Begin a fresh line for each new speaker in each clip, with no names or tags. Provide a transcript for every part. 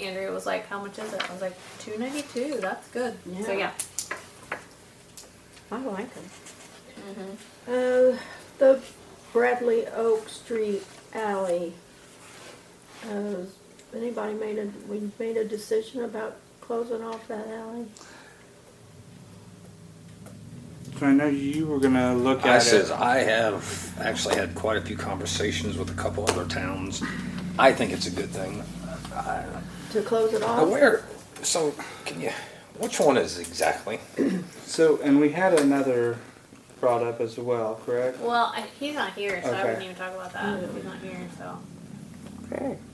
Andrea was like, "How much is it?" I was like, 292 That's good." So yeah.
Yeah. I like them.
Uh, the Bradley Oak Street alley. Uh, anybody made a, we made a decision about closing off that alley?
So I know you were gonna look
I
at
says
it.
I have actually had quite a few conversations with a couple other towns. I think it's a good thing.
To close it
Now,
off?
where? So can you? Which one is exactly?
So and we had another brought up as well, correct?
Well, I, he's not here, so I
Okay.
wouldn't even talk about that. He's not here, so.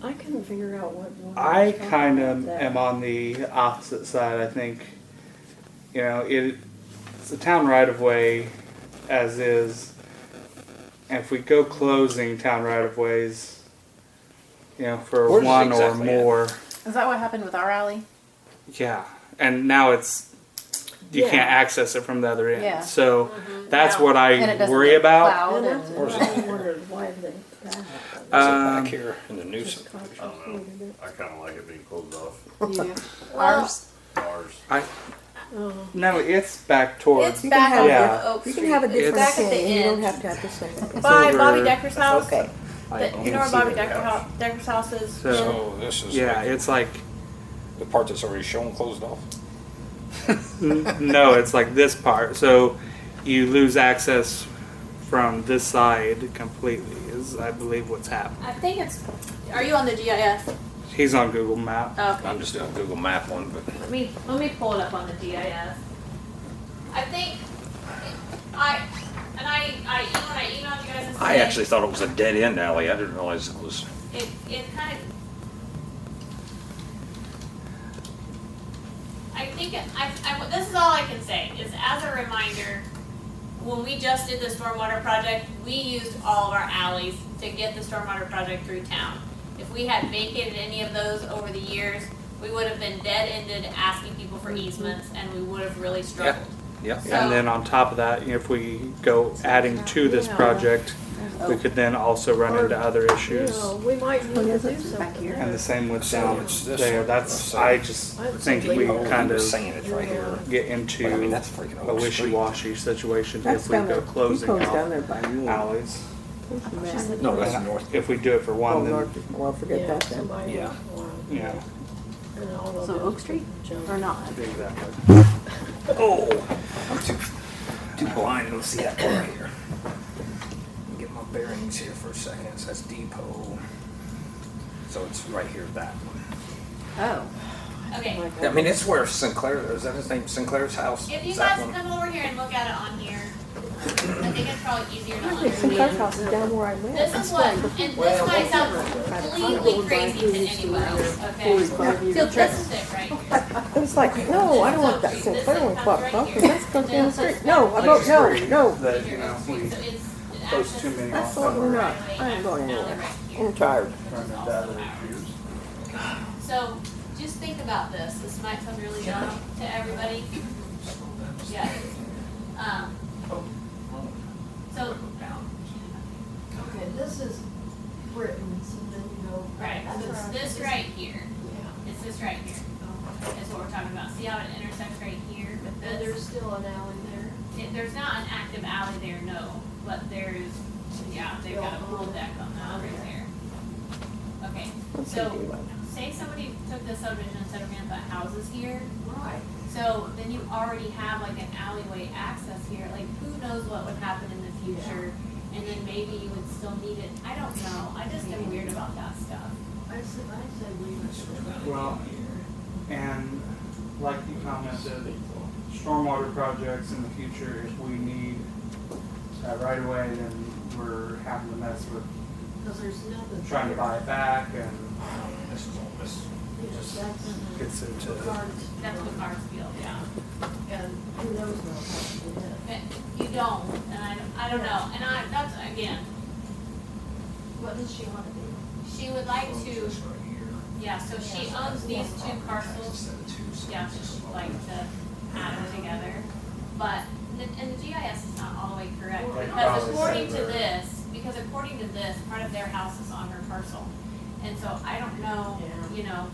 I couldn't figure out what one.
I
was talking
kind
about
of
that.
am on the opposite side. I think, you know, it, it's a town right of way, as is. And if we go closing town right of ways, you know, for
Where's it
one
exactly
or
at?
more,
Is that what happened with our alley?
yeah. And now it's you
Yeah.
can't access it from the other end.
Yeah. Mm-hmm.
So that's
Yeah.
what
And it
I
doesn't
worry
get
about.
plowed
And
and-
that's
Where's
what I wondered, why they, that
Is it
Um,
back here in the new
just
center?
concentrated it.
I kind of like it being closed off.
You.
Ours?
Ours.
I
Oh,
no, it's back towards.
It's
You can
back
have
on
Yeah.
Oak
You
Street.
can have a
It's
different
back at the
opinion. You don't
end
have to have the same.
by
over.
Bobby Decker's house.
Okay.
The, you know where Bobby Decker's house, Decker's house is?
So-
So this is
Yeah, it's like
the part that's already shown closed off.
N- no, it's like this part. So you lose access from this side completely. Is I believe what's happened.
I think it's. Are you on the GIS?
He's on Google Map.
Oh, Okay.
I'm just doing a Google Map one, but
Let me let me pull it up on the GIS. I think I and I I when I emailed you guys. This
I
morning,
actually thought it was a dead end alley. I didn't realize it was.
it it kind of. I think it- I, I this is all I can say is as a reminder. When we just did the stormwater project, we used all of our alleys to get the stormwater project through town. If we had vacated any of those over the years, we would have been dead-ended asking people for easements, and we would have really struggled.
Yeah.
And then on top of that, if we go adding to this
Yeah.
project, we could then also run into other
You
issues.
know, we might need to do something.
back here?
And the same with
So
down
it's this
there.
one.
That's
So-
I just
I would
think
say
we
leave it.
kind of
Oh, saying it's right here.
get
But I mean,
into
that's freaking
a
Oak Street.
wishy-washy situation
That's
if we
down there.
go
You
closing
closed down
off
there by me.
alleys.
Man.
No, that's north.
If we do it for
Oh,
one, then
Lord. Well, forget
Yeah,
that then.
somebody.
Yeah.
would want
yeah,
it, And all of
So
it.
Oak Street or not?
exactly.
Oh, I'm too too blind to see that far here. Get my bearings here for a second. So that's depot. So it's right here, that one.
Oh.
Okay,
I mean, it's where Sinclair is. That his name, Sinclair's house.
If you
Is that
guys
one?
come over here and look at it on here, I think it's probably easier to
There's some dark
understand.
houses down where I live.
This is what, and this might sound completely crazy to anyone else, okay? So this is it right here.
It was like, no, Oh, I don't want that Sinclair one clock broken. Let's go down the street. No, I don't, no, no.
That you know, we
So it's the
post
access
too many
That's
off.
what we're not.
right
I ain't going
alley
anywhere.
right here.
I'm tired.
This is also ours. So just think about this. This might sound really dumb to everybody. Yeah. Um, so,
Okay, this is Britain, so then you go.
right, so it's this right here. It's this right here. Is what we're talking about. See how it intersects right here with
And
this?
there's still an alley there.
It- There's not an active alley there, no, but there is, yeah, they've got a pool deck on that right there. Okay,
Let's see,
so
do one.
say somebody took this subdivision and said, we're gonna put houses here.
Right.
So then you already have like an alleyway access here, like who knows what would happen in the future? And then maybe you would still need it, I don't know, I just am weird about that stuff.
I said, I said leave it.
Well, and like you commented, stormwater projects in the future, if we need that right away, then we're having to mess with
Because there's nothing.
trying to buy it back and
This is all this.
Yes, that's
gets into.
in the cards,
That's what cars feel, yeah.
and who knows what happened
But you don't, and I, I don't know, and I, that's, again,
What does she want to do?
she would like to,
This right here.
yeah, so she owns these two parcels,
Instead of two, so
yeah,
this is all-
like to add them together. But, the- and the GIS is not all the way correct,
Well, they
because
probably
according to
said they're-
this, because according to this, part of their house is on her parcel. And so I don't know,
Yeah.
you know,